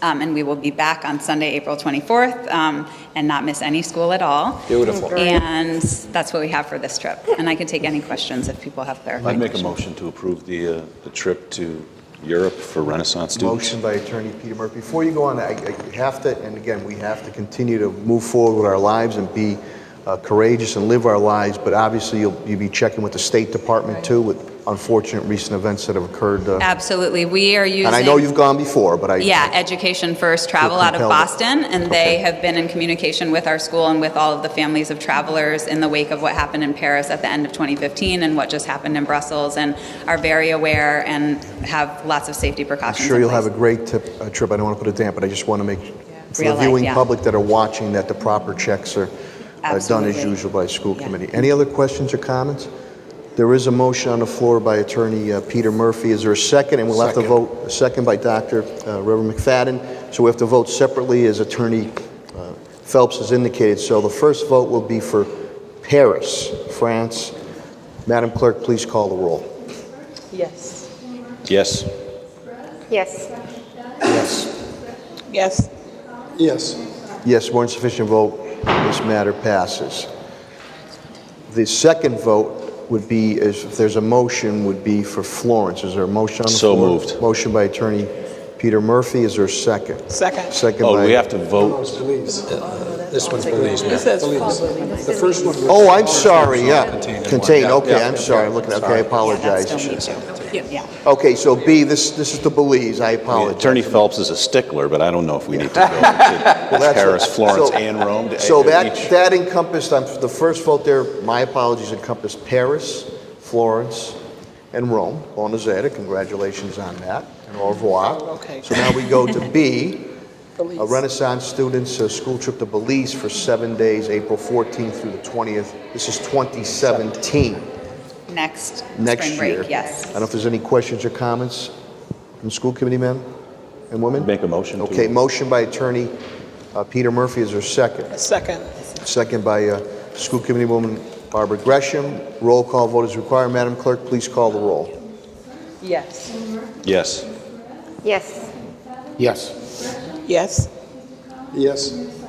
Um, And we will be back on Sunday, April 24th, um, and not miss any school at all. Beautiful. And that's what we have for this trip. And I can take any questions if people have clarifications. I'd make a motion to approve the, uh, the trip to Europe for Renaissance students. Motion by Attorney Peter Murphy. Before you go on, I I have to, and again, we have to continue to move forward with our lives and be uh, courageous and live our lives, but obviously you'll, you'll be checking with the State Department too with unfortunate recent events that have occurred. uh, Absolutely. We are using. And I know you've gone before, but I. Yeah, Education First Travel out of compelled. Boston, and they Okay. have been in communication with our school and with all of the families of travelers in the wake of what happened in Paris at the end of 2015 and what just happened in Brussels, and are very aware and have lots of safety I'm precautions. sure in you'll have a place. great tip- uh, trip. I don't want to put it down, but I just want to make, for Real the life, viewing yeah. public that are watching, that the proper checks are uh, done as Absolutely. usual by school Yeah. committee. Any other questions or comments? There is a motion on the floor by Attorney uh, Peter Murphy. Is there a second? And we'll have to vote, a second by Dr. uh, Reverend McFadden. So we have to vote separately as Attorney uh, Phelps has indicated. So the first vote will be for Paris, France. Madam Clerk, please call the roll. Yes. Yes. Yes. Yes. Yes, more than sufficient vote, this matter passes. The second vote would be, is if there's a motion, would be for Florence. Is there a motion on the So floor? moved. Motion by Attorney Peter Murphy, is there a second? Second. Second Oh, we by, have to vote. This one's Belize, It says The first one was oh, I'm sorry, yeah, contained, Yeah, okay, yeah, I'm sorry, look, okay, I That apologize. still needs you. Yeah. Okay, so B, this, this is the Belize, I apologize. Attorney Phelps is a stickler, but I don't know if we need to go to Well, that's- Paris, Florence, so- and Rome. to- So that, each- that encompassed, um, the first vote there, my apologies, encompassed Paris, Florence, and Rome. Buona Zeta, congratulations on that, and au revoir. Okay. So now we go to B, a Belize. Renaissance students' uh, school trip to Belize for seven days, April 14th through the 20th. This is 2017, Next next spring year. break, yes. I don't know if there's any questions or comments from school committee men and women? Make a motion to. Okay, motion by attorney uh, Peter Murphy, is there a second? Second. Second by uh, School Committee Woman Barbara Gresham. Roll call vote is required. Madam Clerk, please call the roll. Yes. Yes. Yes. Yes. Yes. Yes.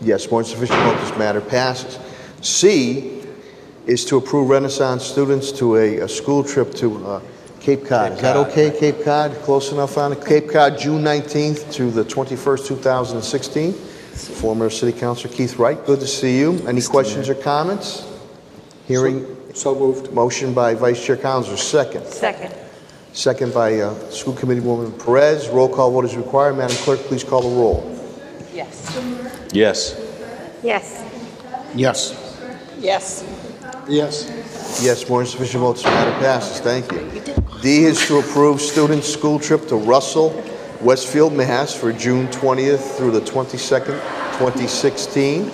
Yes, more than sufficient vote, this matter passes. C is to approve Renaissance students to a, a school trip to uh, Cape Cod. Is that okay, Cape Cod? Close enough on it? Cape Cod, June 19th to the 21st, 2016. Former City Councilor Keith Wright, good to see you. Any questions or comments? Hearing, So moved. motion by Vice Chair Councilor, second. Second. Second by uh, School Committee Woman Perez. Roll call vote is required. Madam Clerk, please call the roll. Yes. Yes. Yes. Yes. Yes. Yes. Yes, more than sufficient votes, the matter passes. Thank you. D is to approve students' school trip to Russell, Westfield, Mass. for June 20th through the 22nd, 2016.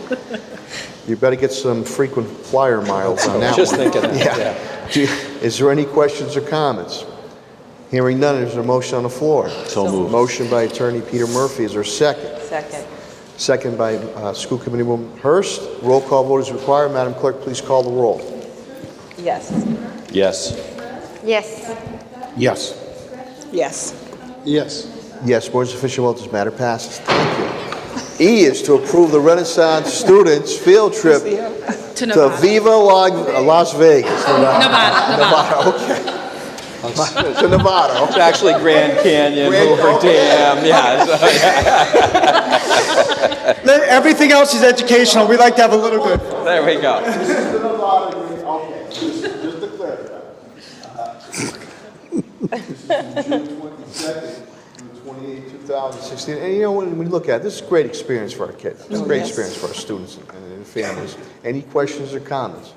You better get some frequent flyer miles on that Just one. thinking that, Yeah. Do you- Is there any questions or comments? Hearing none, is there a motion on the floor? So moved. Motion by Attorney Peter Murphy. Is there a second? Second. Second by uh, School Committee Woman Hurst. Roll call vote is required. Madam Clerk, please call the roll. Yes. Yes. Yes. Yes. Yes. Yes. Yes, more than sufficient vote, this matter passes. Thank you. E is to approve the Renaissance students' field trip To to Nevada. Viva La- uh, Las Vegas. Nevada, Nevada. Nevada, okay. To Nevada, okay. actually Grand Canyon, Grand- Hoover okay. Dam, yeah. so- Everything else is educational. We like to have a little good. There we go. Just to clarify. This is June 22nd, 28, 2016. And you know, when we look at it, this is a great experience for our kids. It's a Oh, great experience for our students and- and families. Any questions or comments?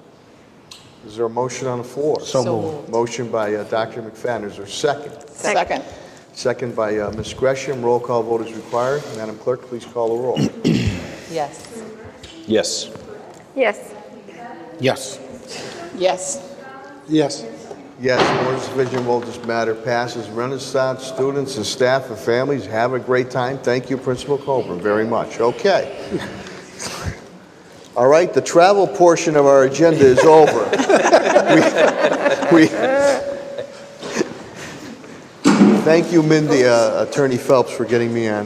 Is there a motion on the floor? So moved. Motion by uh, Dr. McFadden, is there a second? Second. Second by uh, Ms. Gresham, roll call vote is required. Madam Clerk, please call the roll. Yes. Yes. Yes. Yes. Yes. Yes. Yes, more than sufficient vote, this matter passes. Renaissance students and staff and families, have a great time. Thank you, Principal Coburn, very much. Okay. All right, the travel portion of our agenda is over. We- we- Thank you, Mindy, uh, Attorney Phelps, for getting me on